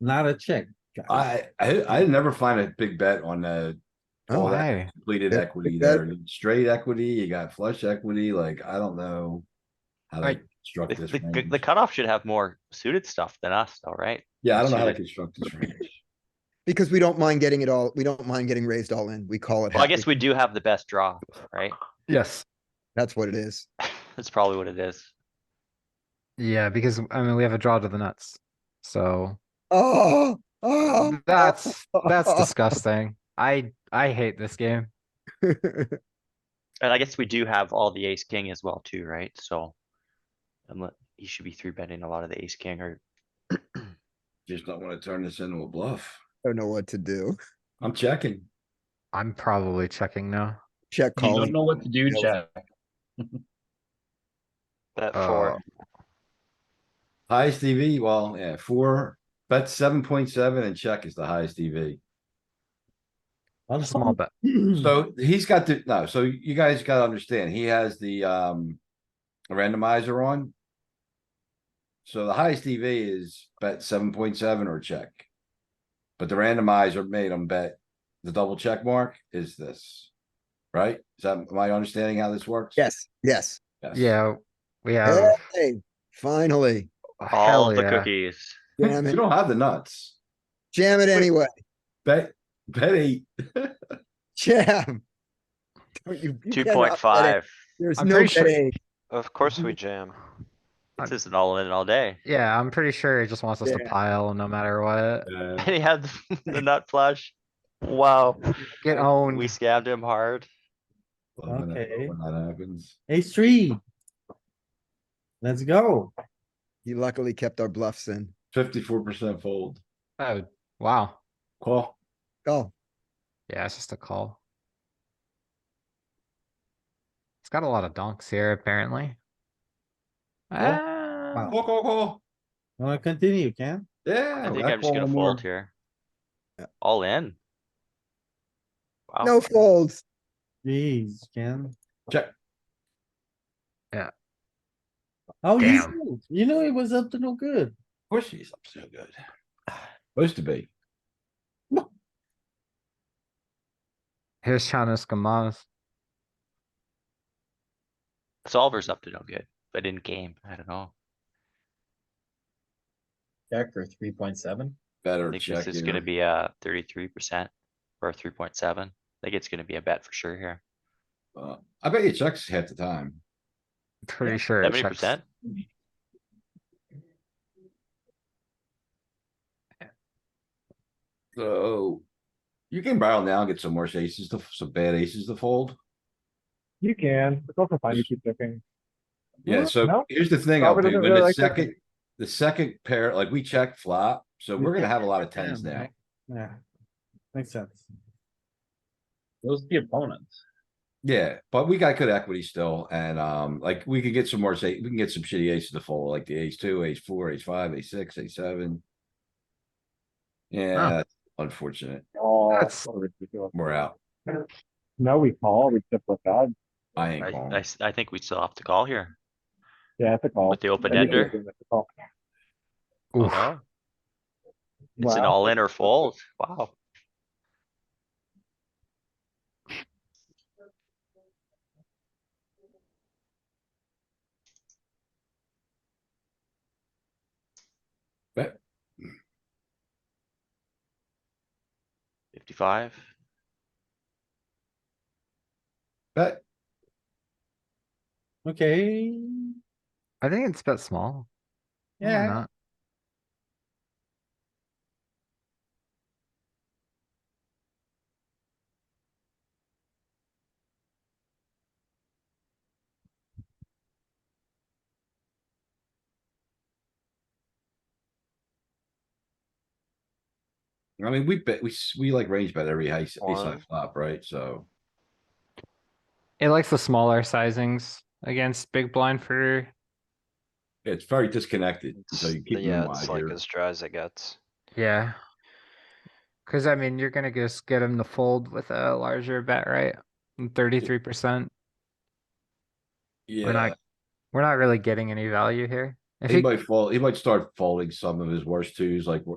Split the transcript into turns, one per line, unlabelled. not a check. guys.
I, I, I never find a big bet on a
Oh,
All that.
hey,
completed
Yeah,
equity
big
there, straight equity, you got flush equity, like, I don't know. How to
Right.
construct
The,
this
the- the,
range.
the cutoff should have more suited stuff than us, though, right?
Yeah, I don't know how to
should-
construct this range.
because we don't mind getting it all, we don't mind getting raised all in. We call it.
Well, I
happy.
guess we do have the best draw, right?
Yes.
That's what it is.
That's probably what it is.
Yeah, because I mean we have a draw to the nuts. So
Oh, oh.
that's that's disgusting. I I hate this game.
And I guess we do have all the ace king as well too, right? So. And he should be three betting a lot of the ace king or
Just don't wanna turn this into a bluff.
Don't know what to do.
I'm checking.
I'm probably checking now.
Check
You
call.
don't know what to do,
Calls.
Jack.
bet four.
Highest EV, well, yeah, four, bet seven point seven and check is the highest E EV.
Well,
Small bet.
So he's got the, no, so you guys gotta understand, he has the, um, randomizer on. So the highest EV is bet seven point seven or check. But the randomizer made him bet the double check mark is this, right? Is that, am I understanding how this works?
Yes, yes.
Yes.
Yeah, we have oh,
Hey, finally.
All
hell
the
yeah.
cookies.
Jam
You
it,
don't have the nuts.
jam it anyway.
Bet, bet eight.
Jam. Don't you- you cannot
Two
bet
point
it.
five.
There's
I'm
no
pretty sure-
betting.
Of course we jam.
This isn't all in and all day.
Yeah, I'm pretty sure he just wants us to
Yeah.
pile no matter what.
Uh,
And he had the nut flush. Wow,
Get owned.
we scammed him hard.
when that-
Okay.
When that happens.
Ace three. Let's go.
He luckily kept our bluffs in.
Fifty-four percent fold.
Oh, wow.
Call.
Oh,
Yeah, it's just a call. It's got a lot of donks here, apparently. Ah,
Wow.
Call, call, call.
Wanna continue, Ken?
Yeah.
I think
that
I'm just
call
gonna
no more.
fold here. All in. Wow.
no folds.
Jeez, Ken.
Check.
Yeah.
Oh, you,
Damn.
fooled. you know, it was up to no good.
Of course he's up so good. Supposed to be.
Here's Chanos Gamaz.
Solver's up to no good, but in game, I don't know.
Jack or three point seven?
Better
I think
check.
this is gonna
here.
be a thirty-three percent or three point seven. I think it's gonna be a bet for sure here.
Uh, I bet you checks half the time.
Pretty sure it
Seventy
checks.
percent?
So you can barrel now and get some worse aces to, some bad aces to fold.
You can, it's also fine to keep looking.
Yeah,
Mhm.
so
No.
here's the thing, I'll
Robert
do,
doesn't
when
really
the
like that.
second, the second pair, like we check flop, so we're gonna have a lot of tens
Damn,
now.
right? Yeah. Makes sense.
Those are the opponents.
Yeah, but we got good equity still, and um, like we could get some more, say, we can get some shitty aces to fold, like the ace two, ace four, ace five, ace six, ace seven. Yeah, that's unfortunate,
Oh,
That's-
what a ridiculous-
we're out,
No, we call, we tip with God.
I
I,
ain't calling.
I s- I think we still have to call here
Yeah, it's a call.
with the open
I think we're
ender.
doing this a call.
Oof.
Wow. It's an
Wow.
all in or fold. Wow.
Bet.
Fifty-five.
Bet,
Okay,
I think it's bet small. Why
yeah,
not?
I mean, we bet, we, s- we like range bet every ace, ace high
One.
flop, right, so.
It likes the smaller sizings against big blind for
It's very disconnected, so
It's-
you keep
Yeah,
them wide
it's like
here,
as dry as it gets.
yeah. Cuz I mean, you're going to just get him to fold with a larger bet, right? And 33%. We're
yeah,
not we're not really getting any value here. If
he
he
might fall, he might start folding some of his worst twos, like